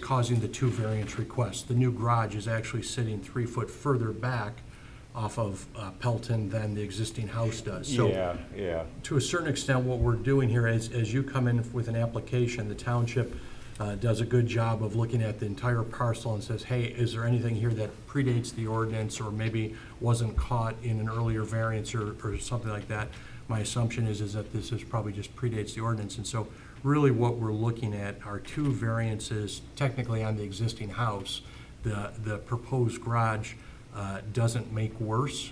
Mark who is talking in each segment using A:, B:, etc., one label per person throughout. A: causing the two variance requests. The new garage is actually sitting three foot further back off of uh, Pelton than the existing house does. So
B: Yeah, yeah,
A: to a certain extent, what we're doing here is, as you come in with an application, the township uh, does a good job of looking at the entire parcel and says, hey, is there anything here that predates the ordinance or maybe wasn't caught in an earlier variance or, or something like that? My assumption is, is that this is probably just predates the ordinance. And so really what we're looking at are two variances technically on the existing house. The, the proposed garage uh, doesn't make worse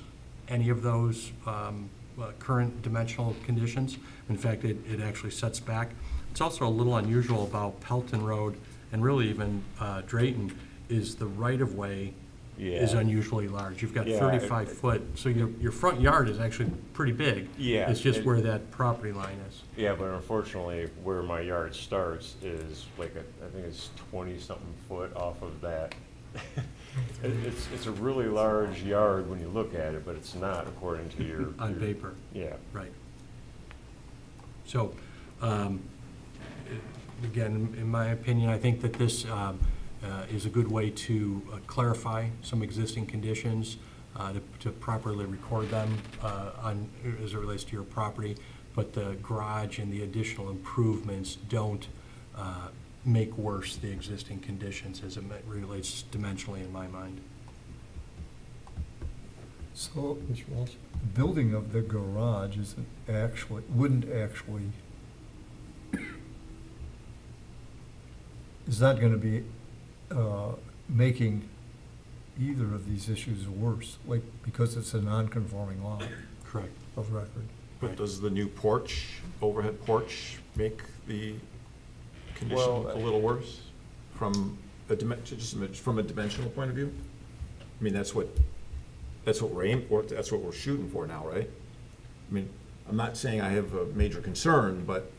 A: any of those um, uh, current dimensional conditions. In fact, it, it actually sets back. It's also a little unusual about Pelton Road and really even uh, Drayton is the right-of-way is
B: Yeah.
A: unusually large. You've got
B: Yeah, it-
A: 35 foot, so your, your front yard is actually pretty big.
B: Yeah,
A: It's just
B: it-
A: where that property line is.
B: yeah, but unfortunately, where my yard starts is like, a- I think it's twenty-something foot off of that. It, it's, it's a really large yard when you look at it, but it's not according to your.
A: On
B: your-
A: paper.
B: Yeah,
A: Right. So, um, i- again, in my opinion, I think that this um, uh, is a good way to uh, clarify some existing conditions, uh, to- to properly record them uh, on, as it relates to your property, but the garage and the additional improvements don't uh, make worse the existing conditions as it ma- relates dimensionally in my mind.
C: So, the building of the garage isn't actually, wouldn't actually, is not gonna be, uh, making either of these issues worse, like, because it's a non-conforming lot
A: Correct.
C: of record.
D: But does the new porch, overhead porch, make the condition
B: Well,
D: look a little worse from a dimension, just a min- from a dimensional point of view? I mean, that's what, that's what we're aiming for, that's what we're shooting for now, right? I mean, I'm not saying I have a major concern, but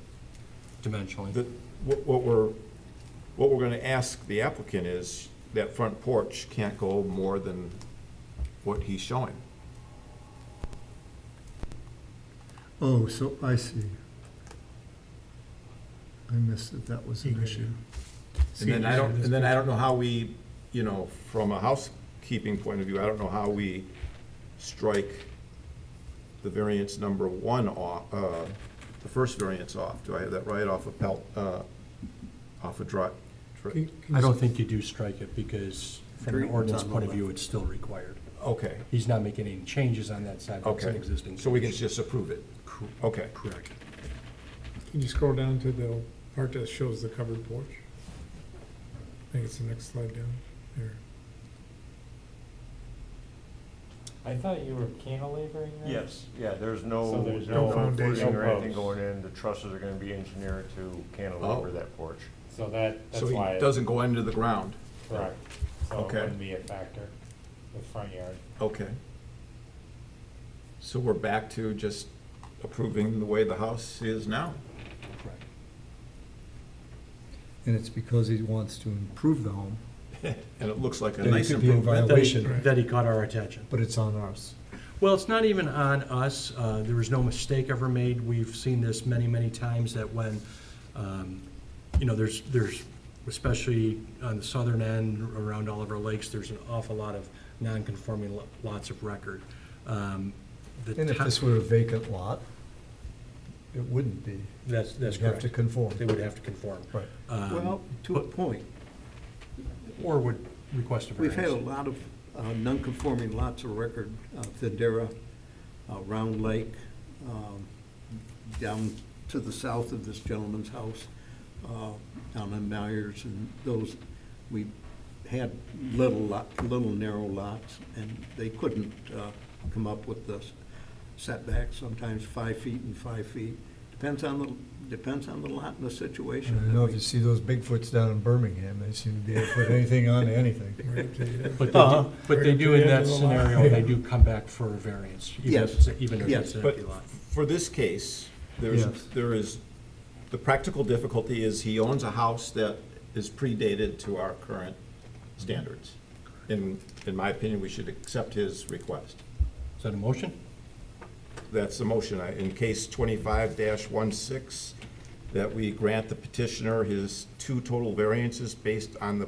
D: the,
A: Dimensionally.
D: what, what we're, what we're gonna ask the applicant is that front porch can't go more than what he's showing.
C: Oh, so I see. I missed that that was an issue.
D: And then I don't, and then I don't know how we, you know, from a housekeeping point of view, I don't know how we strike the variance number one off, uh, the first variance off. Do I have that right off of Pelt, uh, off of Dri- Dri-
A: I don't think you do strike it because from an ordinance point of view, it's still required.
D: Okay,
A: He's not making any changes on that side, that's an
D: okay.
A: existing.
D: So we can
A: condition.
D: just approve it? Okay.
A: Correct.
E: Can you scroll down to the part that shows the covered porch? I think it's the next slide down there.
F: I thought you were cantilevering that?
B: yes, yeah, there's no,
F: So there's
E: no
B: no foundation
E: foundation.
B: or anything
F: No
B: going
F: posts.
B: in, the trusses are gonna be engineered to cantilever
D: Oh.
B: that porch.
F: So that, that's
D: So he
F: why. it-
D: doesn't go into the ground?
F: Correct. So it
D: Okay.
F: wouldn't be a factor, the front yard.
D: Okay. So we're back to just approving the way the house is now?
A: Correct.
C: And it's because he wants to improve the home,
D: And it looks like a
C: Then it
D: nice
C: could be in
D: improvement?
A: That he-
C: Violation.
A: That he caught our attention.
C: but it's on ours.
A: Well, it's not even on us. Uh, There was no mistake ever made. We've seen this many, many times that when, um, you know, there's, there's, especially on the southern end around all of our lakes, there's an awful lot of non-conforming lo- lots of record. Um, the
C: And if
A: to-
C: this were a vacant lot, it wouldn't be.
A: That's, that's
C: You'd have
A: correct.
C: to conform.
A: They would have to conform.
C: Right.
A: Um,
G: Well, to a point.
A: Or would request a
G: We've had a
A: variance.
G: lot of uh, non-conforming lots of record, uh, Thedera, uh, Round Lake, um, down to the south of this gentleman's house, uh, down in Myers, and those, we had little lot, little narrow lots, and they couldn't uh, come up with the setbacks, sometimes five feet and five feet. Depends on the, depends on the lot and the situation.
C: And I
G: that
C: know
G: we-
C: if you see those Bigfoots down in Birmingham, they seem to be able to put anything on anything.
E: Right up to the-
A: But they
G: Uh-huh.
A: do, but they do in that scenario, they
E: Yeah.
A: do come back for a variance, even if
G: Yes.
A: it's, a- even if
G: Yes.
A: it's an
D: But
A: empty lot.
D: for this case, there's,
C: Yes.
D: there is, the practical difficulty is he owns a house that is predated to our current standards. In, in my opinion, we should accept his request.
A: Is that a motion?
D: That's the motion. I- In case twenty-five 16 that we grant the petitioner his two total variances based on the